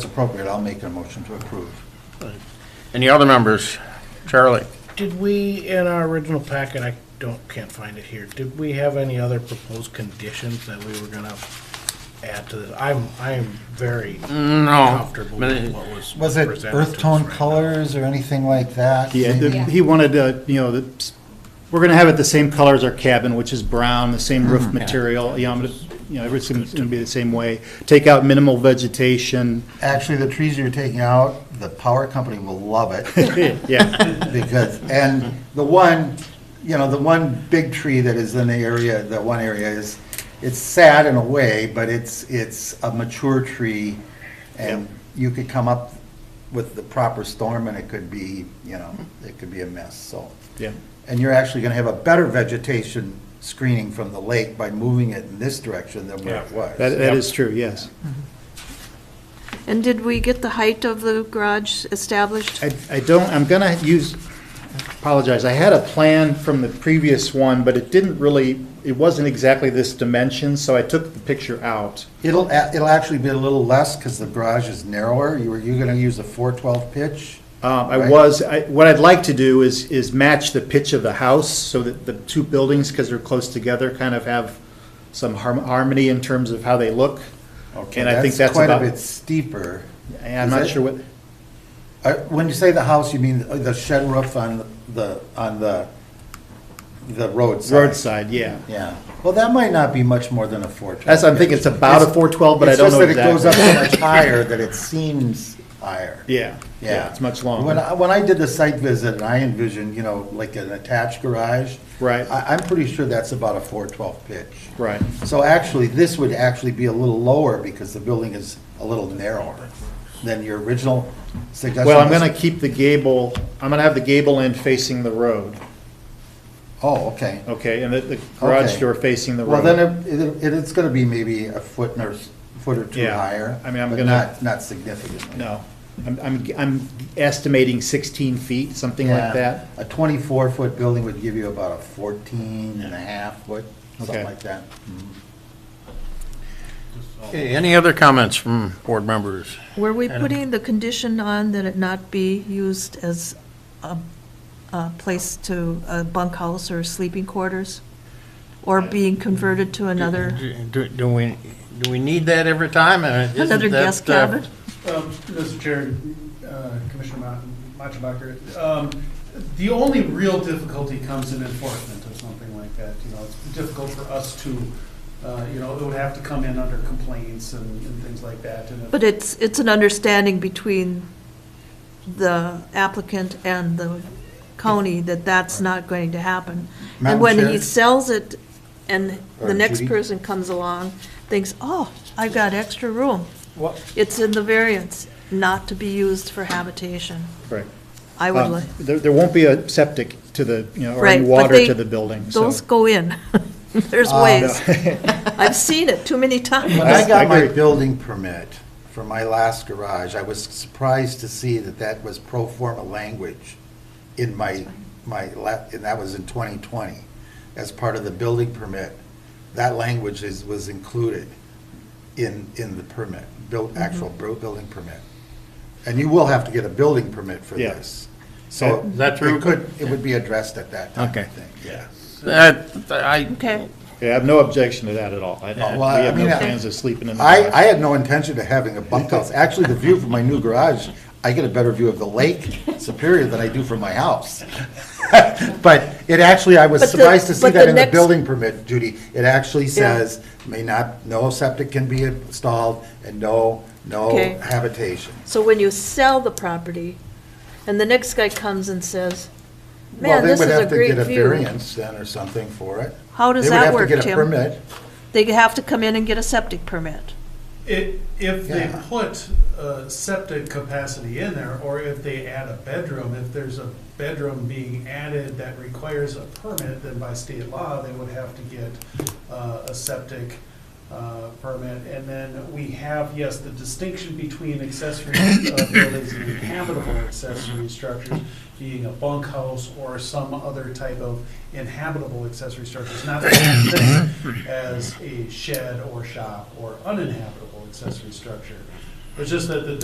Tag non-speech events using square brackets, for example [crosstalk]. It's appropriate, I'll make a motion to approve. Any other members? Charlie? Did we, in our original packet, I don't, can't find it here, did we have any other proposed conditions that we were gonna add to this? I'm, I'm very No. comfortable with what was Was presented it to us earth tone right now. colors or anything like that? Yeah, the- Yeah. he wanted to, you know, the- we're gonna have it the same color as our cabin, which is brown, the same roof material, you know, I'm gonna- you know, everything's gonna be the same way. Take out minimal vegetation, Actually, the trees you're taking out, the power company will love it [laughs] yeah, because, and the one, you know, the one big tree that is in the area, that one area is, it's sad in a way, but it's, it's a mature tree and you could come up with the proper storm and it could be, you know, it could be a mess, so. yeah. And you're actually gonna have a better vegetation screening from the lake by moving it in this direction than where it was. That, that is true, yes. And did we get the height of the garage established? I, I don't, I'm gonna use, apologize, I had a plan from the previous one, but it didn't really, it wasn't exactly this dimension, so I took the picture out. It'll, a- it'll actually be a little less because the garage is narrower. You were, you gonna use a four twelve pitch? Um, I Right. was, I, what I'd like to do is, is match the pitch of the house so that the two buildings, because they're close together, kind of have some harm- harmony in terms of how they look. Okay, And I think that's Quite a about- bit steeper. And I'm Is not it- sure what, Uh, When you say the house, you mean the the shed roof on the, on the, the roadside? roadside, yeah. Yeah. Well, that might not be much more than a four twelve. That's, I'm thinking it's about a four twelve, but I don't know It's just that it exactly. goes up so much higher that it seems higher. Yeah, yeah, it's much When longer. I, when I did the site visit, and I envisioned, you know, like an attached garage. Right. I, I'm pretty sure that's about a four twelve pitch. Right. So actually, this would actually be a little lower because the building is a little narrower than your original suggestion. Well, I'm gonna keep the gable, I'm gonna have the gable end facing the road, Oh, okay. okay, and the, the garage Okay. door facing the Well, road. then it, it, it's gonna be maybe a foot or, s- foot or two Yeah. higher. I mean, I'm but gonna- Not, not significantly. No, I'm, I'm, I'm estimating sixteen feet, something Yeah. like that. A twenty-four foot building would give you about a fourteen and a half foot, something Okay. like that. Okay, any other comments from board members? Were we putting the condition on that it not be used as a, a place to, a bunkhouse or sleeping quarters? Or being converted to another, Do- Do do we, do we need that every time? And isn't another that, guest uh, cabin? Um, Mr. Chair, uh, Commissioner Ma- Matschbacher, um, the only real difficulty comes in enforcement of something like that, you know, it's difficult for us to, uh, you know, it would have to come in under complaints and and things like that, and if But it's, it's an understanding between the applicant and the county that that's not going to happen. Madam And when Chair? he sells it, and Or the next Judy? person comes along, thinks, oh, I've got extra room. What- It's in the variance, not to be used for habitation. Correct. I Ah, would like, Um, There, there won't be a septic to the, you know, or right. any but water they- to the building, so. Those go in. [laughs] [laughs] There's ways. I've seen it too many Ah, When times. I got my agree. building permit for my last garage, I was surprised to see that that was pro forma language in my, my, la- and that was in 2020. As part of the building permit, that language is, was included in, in the permit, built, actual bu- building permit. And you will have to get a building permit for Yeah. this. So Is that it true? could, it would be addressed at that time, I Okay. think, yeah. That, I, Okay, Yeah, I have no objection to that at all. I, we well, I have no mean, I- plans of sleeping in the I, I garage. had no intention of having a bunkhouse. Actually, the view from my new garage, I get a better view of the lake Superior than I do from my house. [laughs] But it actually, I was But the- surprised to see but that the in the next- building permit, Judy. It actually says, may not, no septic can be installed and no, no Okay. habitation. so when you sell the property, and the next guy comes and says, Well, man, they this would is a have to great get a view. variance then or something for it. How does that work, They would have to get a Tim? permit. They have to come in and get a septic permit. If, if they Yeah. put uh, septic capacity in there, or if they add a bedroom, if there's a bedroom being added that requires a permit, then by state law, they would have to get uh, a septic uh, permit. And then we have, yes, the distinction between accessory uh, buildings and inhabitable accessory structures being a bunkhouse or some other type of inhabitable accessory structure. It's not the same thing as a shed or shop or uninhabitable accessory structure. It's just that the